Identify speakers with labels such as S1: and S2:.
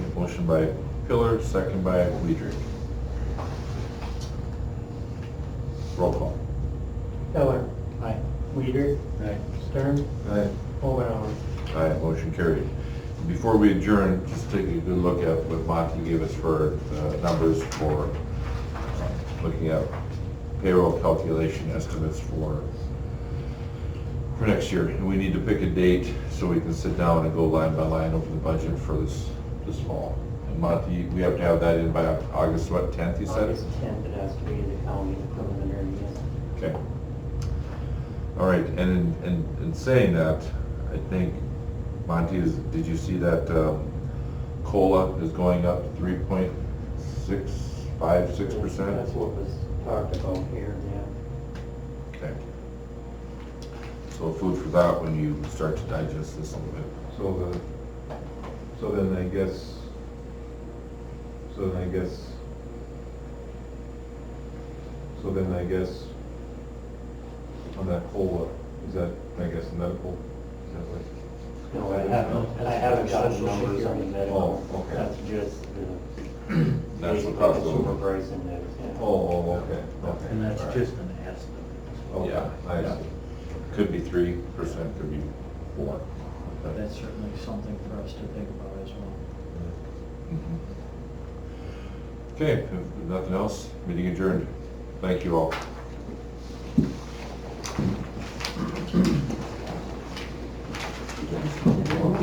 S1: Motion by Pillar, second by Weidrich. Roll call.
S2: Miller. Aye. Weider.
S1: Aye.
S2: Stern.
S1: Aye.
S2: Omenauer.
S1: Aye, motion carried. Before we adjourn, just take a good look at what Monty gave us for uh, numbers for uh, looking at payroll calculation estimates for, for next year. And we need to pick a date so we can sit down and go line by line over the budget for this, this fall. And Monty, we have to have that in by August, what, 10th, you said?
S2: August 10th, it has to be the county preliminary, yes.
S1: Okay. All right, and in, in, in saying that, I think, Monty, is, did you see that, um, COLA is going up three point six, five, six percent?
S2: That's what was talked about here,
S1: Okay. So food for thought when you start to digest this a little bit.
S3: So the, so then I guess, so then I guess, so then I guess, on that COLA, is that, I guess, medical? Is that what?
S2: yeah. No, I haven't, I haven't gotten numbers on the medical.
S3: Oh, okay.
S2: That's just the.
S1: That's the cost
S2: basically the
S1: over.
S2: Supervisor index, yeah.
S3: Oh, oh, okay, okay.
S4: And that's
S3: all right.
S4: just an estimate.
S3: Okay,
S1: Yeah,
S3: I
S1: yeah.
S3: see.
S1: Could be three percent, could be four.
S4: But that's certainly something for us to think about as well.
S1: Mhm. Okay, if nothing else, meeting adjourned. Thank you all.